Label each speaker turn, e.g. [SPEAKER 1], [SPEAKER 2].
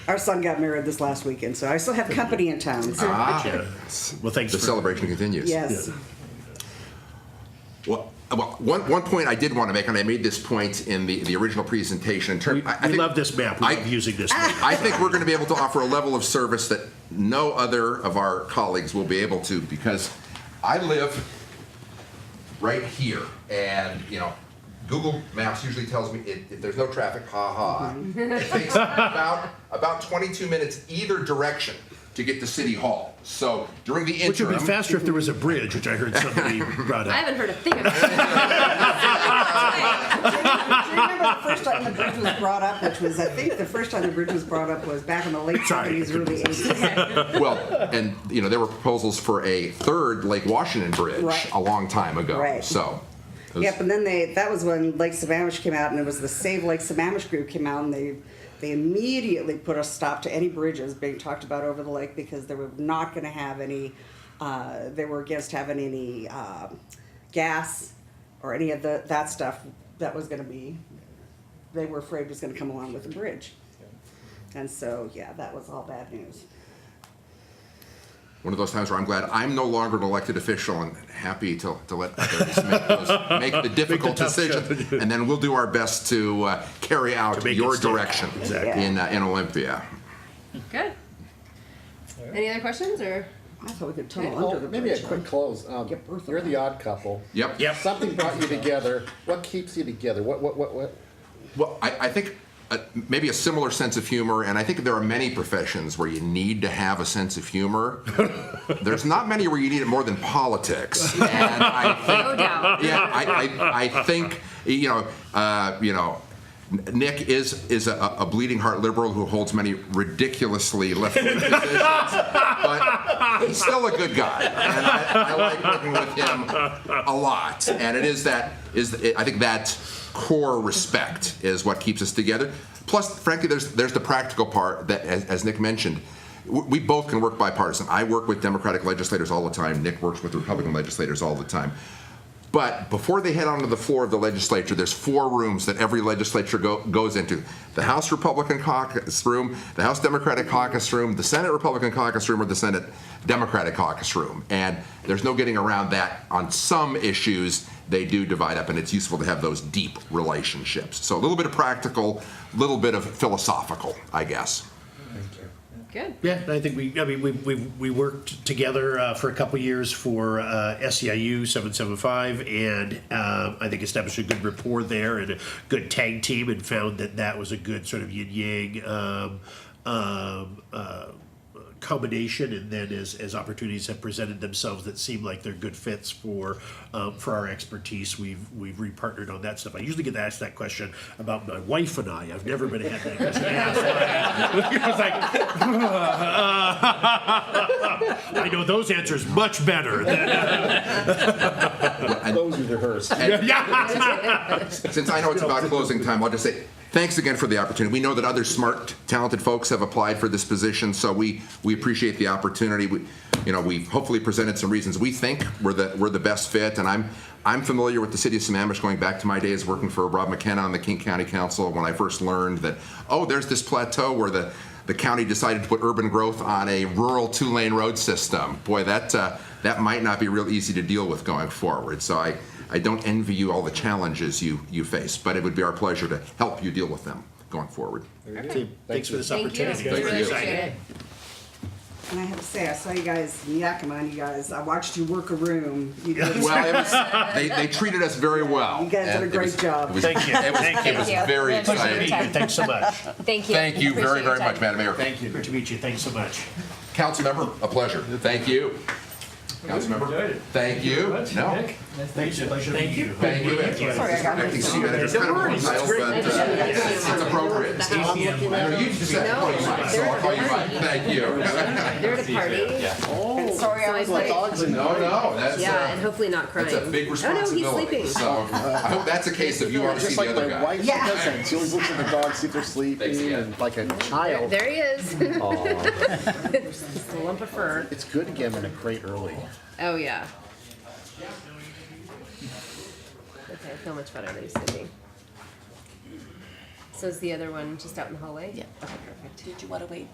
[SPEAKER 1] Our son got married this last weekend, so I still have company in town. So
[SPEAKER 2] Ah,
[SPEAKER 3] Well, thanks.
[SPEAKER 2] the
[SPEAKER 3] for-
[SPEAKER 2] celebration continues.
[SPEAKER 1] yes.
[SPEAKER 2] Well, uh, well, one, one point I did want to make, and I made this point in the, the original presentation. In term,
[SPEAKER 3] We,
[SPEAKER 2] I, I
[SPEAKER 3] we
[SPEAKER 2] think-
[SPEAKER 3] love this map. We
[SPEAKER 2] I-
[SPEAKER 3] love using this. map.
[SPEAKER 2] I think we're going to be able to offer a level of service that no other of our colleagues will be able to because I live right here, and you know, Google Maps usually tells me if, if there's no traffic, ha ha. It takes about about 22 minutes either direction to get to City Hall. So during the interim,
[SPEAKER 3] Which would be faster if there was a bridge, which I heard somebody brought
[SPEAKER 4] I
[SPEAKER 3] up.
[SPEAKER 4] haven't heard a thing about it.
[SPEAKER 1] Do you remember the first time the bridge was brought up, which was, I think the first time the bridge was brought up was back in the late
[SPEAKER 3] Sorry.
[SPEAKER 1] 70s, early 80s.
[SPEAKER 2] Well, and you know there were proposals for a third Lake Washington bridge
[SPEAKER 1] Right.
[SPEAKER 2] a long time ago.
[SPEAKER 1] Right.
[SPEAKER 2] So, it was-
[SPEAKER 1] Yep, and then they, that was when Lake Sammamish came out, and it was the Save Lake Sammamish group came out, and they, they immediately put a stop to any bridges being talked about over the lake because they were not gonna have any, uh, they were against having any, um, gas or any of the, that stuff that was gonna be, they were afraid was gonna come along with the bridge. And so, yeah, that was all bad news.
[SPEAKER 2] one of those times where I'm glad I'm no longer an elected official and happy to, to let others make, those, make the difficult
[SPEAKER 3] tough
[SPEAKER 2] decisions, and then we'll do our best to uh, carry out
[SPEAKER 3] make it
[SPEAKER 2] your
[SPEAKER 3] stick.
[SPEAKER 2] direction
[SPEAKER 3] Exactly.
[SPEAKER 2] in uh, in Olympia.
[SPEAKER 4] Good. Any other questions or?
[SPEAKER 1] I thought we could tunnel
[SPEAKER 5] Well,
[SPEAKER 1] Oh, under the bridge.
[SPEAKER 5] Oh, maybe a
[SPEAKER 1] huh?
[SPEAKER 5] quick close. Um,
[SPEAKER 1] Get Bertha
[SPEAKER 5] you're the odd couple.
[SPEAKER 2] Yep.
[SPEAKER 3] Yep.
[SPEAKER 5] Something brought you together. What keeps you together? What? What? What? What?
[SPEAKER 2] Well, I, I think uh, maybe a similar sense of humor, and I think there are many professions where you need to have a sense of humor. There's not many where you need it more than politics. And I think
[SPEAKER 4] No doubt.
[SPEAKER 2] yeah, I, I, I think you know, uh, you know, Nick is is a, a bleeding heart liberal who holds many ridiculously left wing positions, but he's still a good guy, and I, I like working with him a lot. And it is that is I think that core respect is what keeps us together. Plus, frankly, there's there's the practical part that, as, as Nick mentioned. w- We both can work bipartisan. I work with Democratic legislators all the time. Nick works with Republican legislators all the time. But before they head onto the floor of the legislature, there's four rooms that every legislature go, goes into the House Republican caucus room, the House Democratic caucus room, the Senate Republican caucus room, or the Senate Democratic caucus room. And there's no getting around that. On some issues, they do divide up, and it's useful to have those deep relationships. So a little bit of practical, a little bit of philosophical, I guess.
[SPEAKER 4] Good.
[SPEAKER 3] Yeah, I think we, I mean, we, we, we worked together uh, for a couple years for uh, SEIU 775, and um, I think established a good rapport there and a good tag team, and found that that was a good sort of yin yang um, um, uh, combination. And then as, as opportunities have presented themselves that seem like they're good fits for um, for our expertise, we've we've repartnered on that stuff. I usually get asked that question about my wife and I. I've never been had that question asked. I was like, I know those answers much better than
[SPEAKER 5] Those are rehearsed.
[SPEAKER 2] Since I know it's about closing time, I'll just say thanks again for the opportunity. We know that other smart, talented folks have applied for this position, so we, we appreciate the opportunity. We, you know, we've hopefully presented some reasons we think we're the, we're the best fit, and I'm, I'm familiar with the city of Sammamish going back to my days working for Rob McKenna on the King County Council when I first learned that, oh, there's this plateau where the, the county decided to put urban growth on a rural two-lane road system. Boy, that, uh, that might not be real easy to deal with going forward. So I, I don't envy you all the challenges you, you face, but it would be our pleasure to help you deal with them going forward.
[SPEAKER 3] that. Thanks for this
[SPEAKER 4] Thank you.
[SPEAKER 3] opportunity.
[SPEAKER 4] We really appreciate it.
[SPEAKER 1] And I have to say, I saw you guys in Yakima, and you guys, I watched you work a room. You did
[SPEAKER 2] Well, it was, they, they treated us very well.
[SPEAKER 1] You guys did a
[SPEAKER 2] and it
[SPEAKER 1] great
[SPEAKER 2] was-
[SPEAKER 1] job.
[SPEAKER 2] it was-
[SPEAKER 3] Thank you.
[SPEAKER 2] It was,
[SPEAKER 3] Thank
[SPEAKER 2] it was
[SPEAKER 4] you.
[SPEAKER 2] very
[SPEAKER 4] Yeah, it was
[SPEAKER 2] exciting.
[SPEAKER 4] great.
[SPEAKER 3] Thanks so much.
[SPEAKER 4] Thank you.
[SPEAKER 2] Thank you very,
[SPEAKER 4] Appreciate your
[SPEAKER 2] very
[SPEAKER 4] time.
[SPEAKER 2] much, Madam Mayor.
[SPEAKER 3] Thank you. Good to meet you. Thanks so much.
[SPEAKER 2] Councilmember, a pleasure. Thank you. Councilmember, thank you. No,
[SPEAKER 3] Thanks. Pleasure to meet you.
[SPEAKER 2] thank you. I think city manager's kind of more title, but uh, it's it's appropriate. I know you just said, oh, you might, so I'll call you Mike. Thank you.
[SPEAKER 4] They're at a party. And sorry, I was
[SPEAKER 5] My
[SPEAKER 4] late.
[SPEAKER 5] dogs and
[SPEAKER 2] No, no, that's. uh,
[SPEAKER 4] Yeah, and hopefully not crying.
[SPEAKER 2] That's a big
[SPEAKER 4] Oh, no, he's
[SPEAKER 2] responsibility.
[SPEAKER 4] sleeping.
[SPEAKER 2] So I hope that's a case of you want to see the
[SPEAKER 5] just like
[SPEAKER 2] other
[SPEAKER 5] my
[SPEAKER 2] guy.
[SPEAKER 5] wife's
[SPEAKER 1] Yeah.
[SPEAKER 5] cousin. She always looks at the dogs, see if they're sleeping,
[SPEAKER 2] Thanks, yeah.
[SPEAKER 5] and like a child.
[SPEAKER 4] There he is.
[SPEAKER 5] Aw.
[SPEAKER 4] Just a lump of fur.
[SPEAKER 5] It's good to get them in a crate early.
[SPEAKER 4] Oh, yeah. Okay, I feel much better than you, Cindy. So is the other one just out in the hallway?
[SPEAKER 6] Yeah.
[SPEAKER 4] Okay, perfect.
[SPEAKER 6] Did you want to wait